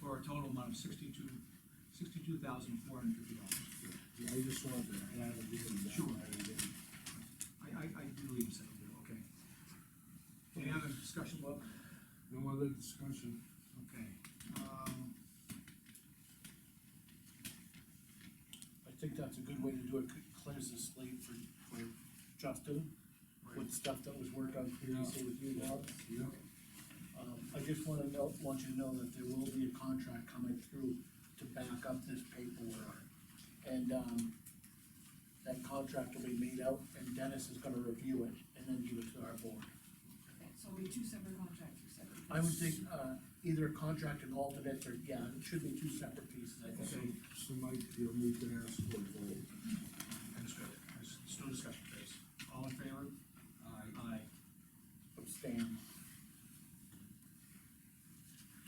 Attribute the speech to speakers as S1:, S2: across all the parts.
S1: a total amount of sixty-two, sixty-two thousand four hundred fifty dollars.
S2: Yeah, I just wanted to add a bit of that.
S1: Sure.
S2: I didn't-
S1: I, I, I do leave some, okay. Any other discussion, Bob?
S2: No other discussion.
S1: Okay, um,
S3: I think that's a good way to do it, clears the slate for, for Justin, with stuff that was worked on previously with you, Bob.
S2: Yeah.
S3: Um, I just wanna know, want you to know that there will be a contract coming through to back up this paperwork. And, um, that contract will be made out, and Dennis is gonna review it, and then give it to our board.
S4: Okay, So we two separate contracts, you said.
S3: I would think, uh, either a contract and alternates, or, yeah, it should be two separate pieces, I
S2: So,
S3: think.
S2: so Mike, you'll need to ask for a vote.
S1: understood, there's still discussion, please. All in favor?
S2: Aye.
S1: Aye.
S3: Abstain.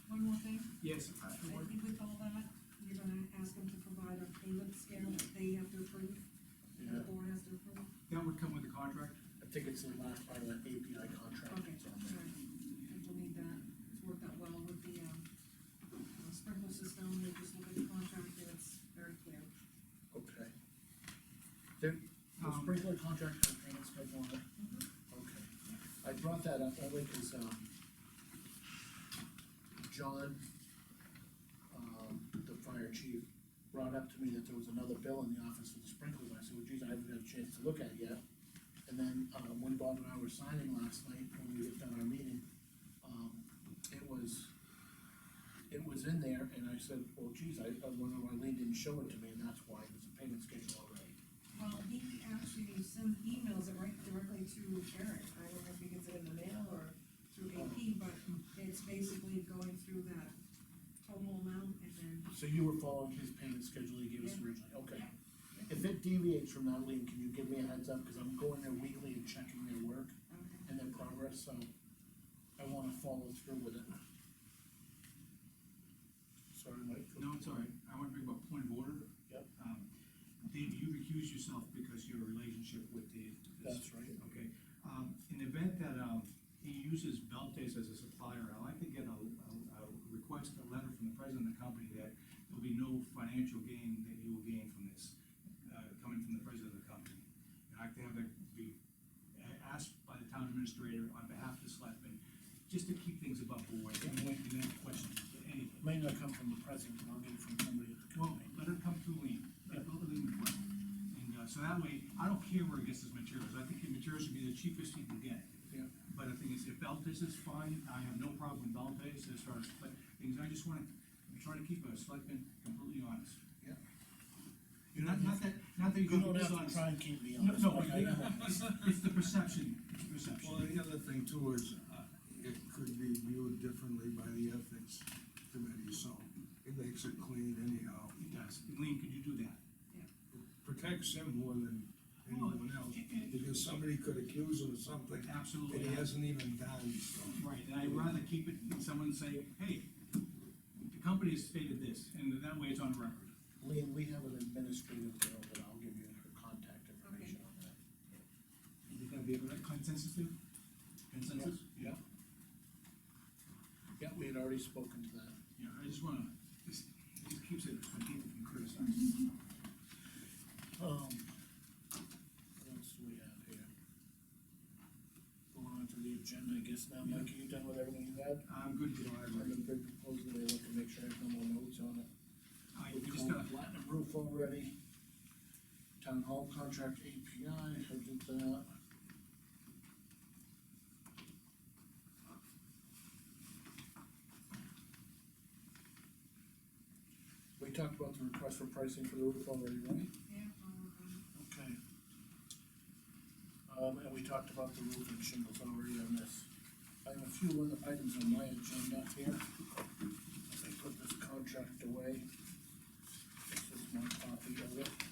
S4: One more thing,
S1: Yes, uh,
S4: I
S1: aye.
S4: think with all that, you're gonna ask them to provide a payment scale that they have to approve, and
S3: Yeah,
S4: the board has to approve.
S1: that would come with the contract,
S3: I think it's the last part of that API contract.
S4: Okay,
S3: It's
S4: so
S3: on there.
S4: we'll need that, it's worked out well with the, um, uh, sprinkler system, we just look at the contract, and it's very clear.
S3: Okay. There, the
S1: Um,
S3: sprinkler contract has payment schedule on it? Okay. I brought that up only because, um, John, um, the fire chief, brought up to me that there was another bill in the office for the sprinklers. I said, well, geez, I haven't got a chance to look at it yet. And then, um, when Bob and I were signing last night, when we had done our meeting, um, it was, it was in there, and I said, well, geez, I, I wonder why Lee didn't show it to me, and that's why, there's a payment schedule already.
S4: Well, he actually sends emails it right directly to Eric, I don't know if he gets it in the mail or through AP, but it's basically going through that total amount and then
S3: So you were following his payment schedule he gave us originally, okay. If it deviates from that, Lee, can you give me a heads up, cause I'm going there weekly and checking their work
S4: Okay,
S3: and their progress, so I wanna follow through with it. Sorry, Mike.
S1: no, it's all right, I want to bring up a point of order.
S3: Yep.
S1: Um, Dave, you recuse yourself because your relationship with the.
S3: That's right.
S1: Okay, um, in the event that, um, he uses Beltes as a supplier, I'd like to get a, a, a request, a letter from the president of the company that there'll be no financial gain that you will gain from this, uh, coming from the president of the company. And I'd like to have that be a- asked by the town administrator on behalf of the selectmen, just to keep things above board, and we won't be any questions, anything.
S3: May not come from the president, but I'll get it from somebody at the
S1: Well,
S3: company.
S1: let it come through lean, let it go lean with it. And, uh, so that way, I don't care where he gets his materials, I think his materials should be the cheapest he can get.
S3: Yeah.
S1: But the thing is, if Beltes is fine, I have no problem with Beltes as far as, but things, I just wanna try to keep a selectman completely honest.
S3: Yeah.
S1: You're not, not that, not that
S3: You
S1: you're
S3: don't
S1: gonna be
S3: have to
S1: dishonest.
S3: try and keep me
S1: No,
S3: honest.
S1: no,
S3: like I am.
S1: it's, it's the perception, it's the perception.
S2: Well, the other thing too is, uh, it could be viewed differently by the ethics committee, so it makes it clean anyhow.
S1: It does, Lean, could you do that?
S2: Protects him more than anyone else, because somebody could accuse him of something that
S1: Absolutely.
S2: he hasn't even done, so.
S1: Right, and I'd rather keep it, than someone say, hey, the company has stated this, and that way it's on record.
S3: Lee, we have an administrative girl that I'll give you her contact information on that.
S1: Is it gonna be a consensus there? Consensus?
S3: Yeah. Yeah, we had already spoken to that.
S1: Yeah, I just wanna, this, this keeps it from people being criticized.
S3: Um, what else do we have here? Going on to the agenda, I guess now, Mike, are you done with everything you had?
S1: I'm good to go, I
S3: I'm gonna bring proposal, I look and make sure I have no more notes on it.
S1: I,
S3: We
S1: we just
S3: called
S1: gotta,
S3: Platinum roof already. Town hall contract API, I did that. We talked about the request for pricing for the roof already, right?
S4: yeah, I'll work on it.
S3: Okay. Um, and we talked about the roof and shingles already on this. I have a few other items on my agenda here. I think put this contract away. This is my copy of it.